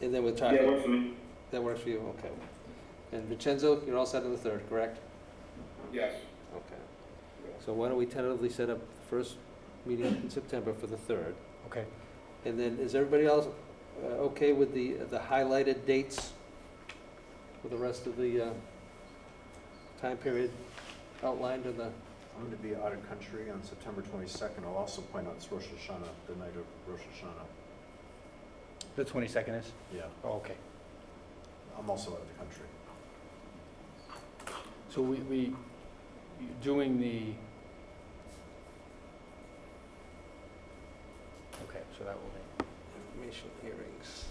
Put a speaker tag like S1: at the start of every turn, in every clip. S1: And then with
S2: Yeah,
S1: traffic,
S2: works for me.
S1: that works for you, okay. And Vincenzo, you're all set on the third, correct?
S2: Yes.
S1: Okay. So why don't we tentatively set up the first meeting in September for the third?
S3: Okay.
S1: And then, is everybody else uh, okay with the, the highlighted dates for the rest of the uh, time period outlined in the,
S4: I'm going to be out of country on September 22nd. I'll also point out it's Rosh Hashanah, the night of Rosh Hashanah.
S3: The 22nd is?
S4: Yeah,
S1: Oh,
S3: Okay.
S4: I'm also out of the country.
S3: So we, we, doing the, okay, so that will be,
S1: information hearings?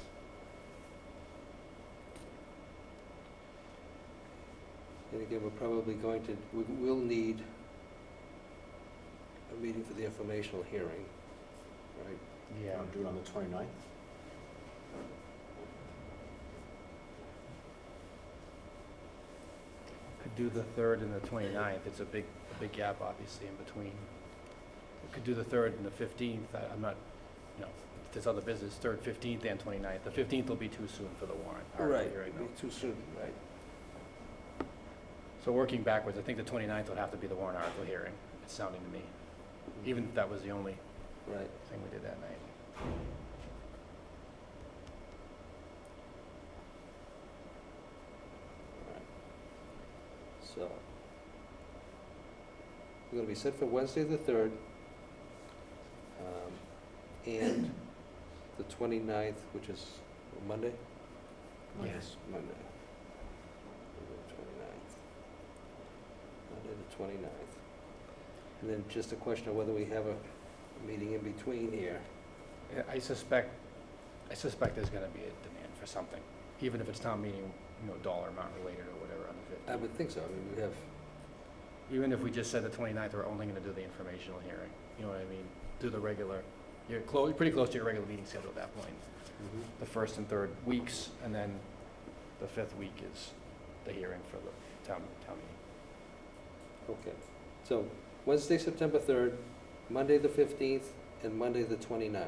S1: And again, we're probably going to, we will need a meeting for the informational hearing, right?
S3: yeah.
S4: I'll do it on the 29th.
S3: Could do the 3rd and the 29th. It's a big, a big gap, obviously, in between. We Could do the 3rd and the 15th. I- I'm not, you know, if there's other business, 3rd, 15th, and 29th. The 15th will be too soon for the warrant. already right now.
S1: Be Too soon, right?
S3: So working backwards, I think the 29th would have to be the warrant article hearing, it's sounding to me. Even if that was the only
S1: Mm-hmm. Right.
S3: thing we did that night.
S1: So, we're gonna be set for Wednesday, the third, um, and the 29th, which is Monday?
S3: Yes.
S1: Monday. Twenty-ninth. Monday, the 29th. And then just a question of whether we have a meeting in between here.
S3: Yeah, I suspect, I suspect there's going to be a demand for something, even if it's town meeting, you know, dollar amount related or whatever on the
S1: I
S3: 15th.
S1: would think so, I mean, we have,
S3: Even if we just said the 29th, we're only going to do the informational hearing, you know what I mean? Do the regular, you're close, you're pretty close to your regular meeting schedule at that point. The first and third weeks, and then the fifth week is the hearing for the town, town meeting.
S1: okay. So, Wednesday, September 3rd, Monday, the 15th, and Monday, the 29th.
S3: Okay.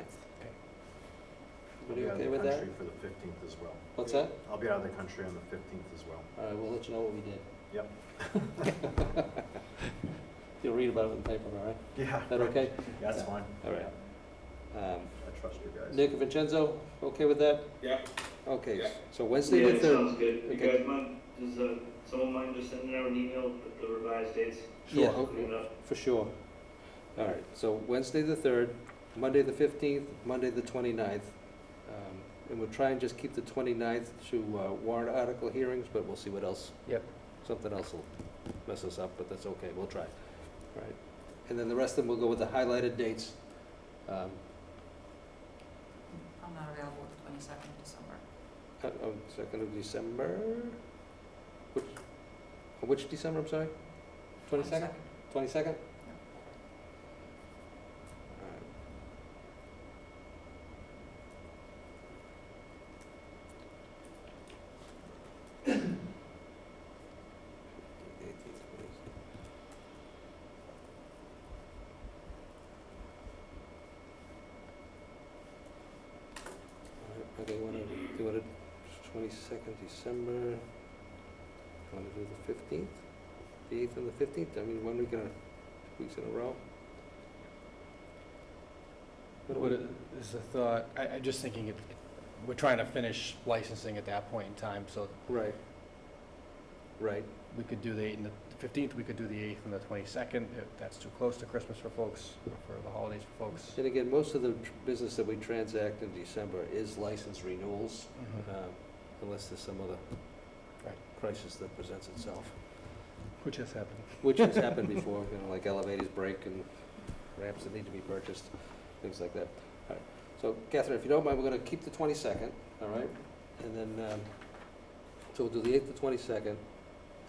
S4: I'll
S1: Everybody
S4: be out
S1: okay
S4: of
S1: with
S4: the
S1: that?
S4: country for the 15th as well.
S1: What's that?
S4: I'll be out of the country on the 15th as well.
S1: All right, we'll let you know what we did.
S4: Yep.
S1: You'll read about it in the paper, all right?
S4: Yeah.
S1: Is that okay?
S4: Yeah, that's fine.
S1: All right. Um,
S4: I trust you guys.
S1: Nick Vincenzo, okay with that?
S2: Yeah.
S1: Okay,
S2: Yeah.
S1: so Wednesday the
S5: Yeah, uh,
S1: third.
S5: sounds good. You
S1: Okay.
S5: guys mind, does, uh, someone mind just sending out an email with the revised dates?
S1: Yeah,
S3: Sure.
S1: okay,
S5: Clean it up.
S1: For sure. All right, so Wednesday the third, Monday the fifteenth, Monday the 29th, Um, And we'll try and just keep the 29th to uh, warrant article hearings, but we'll see what else.
S3: Yep.
S1: Something else will mess us up, but that's okay, we'll try. All Right. And then the rest of them, we'll go with the highlighted dates. Um,
S6: I'm not available the 22nd of December.
S1: Uh, um, Second of December? Which, uh, which December, I'm sorry? Twenty-second? Twenty-second? Okay, wanna, do you wanna, twenty-second December? Wanna do the fifteenth? The eighth and the fifteenth, I mean, one week in a, two weeks in a row? What do
S3: What
S1: we-
S3: is the thought, I, I'm just thinking, it- we're trying to finish licensing at that point in time, so
S1: Right. Right,
S3: we could do the 8th and the 15th, we could do the 8th and the 22nd, if that's too close to Christmas for folks, or for the holidays for folks.
S1: and again, most of the tr- business that we transact in December is license renewals, um, unless there's some other
S3: Right.
S1: crisis that presents itself,
S3: Which has happened.
S1: which has happened before, you know, like elevators break and ramps that need to be purchased, things like that. All right, so Catherine, if you don't mind, we're gonna keep the twenty-second, all right? And then, um, so we'll do the eighth to twenty-second,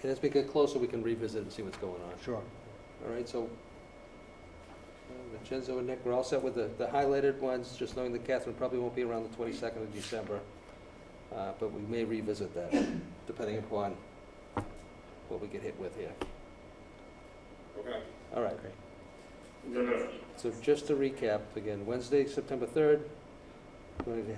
S1: and as we get closer, we can revisit and see what's going on.
S3: Sure.
S1: All right, so uh, Vincenzo and Nick, we're all set with the the highlighted ones, just knowing that Catherine probably won't be around the 22nd of December, Uh, but we may revisit that, depending upon what we get hit with here.
S2: Okay.
S1: All right,
S3: Okay.
S5: Is that all right?
S1: so just to recap, again, Wednesday, September 3rd, we're going to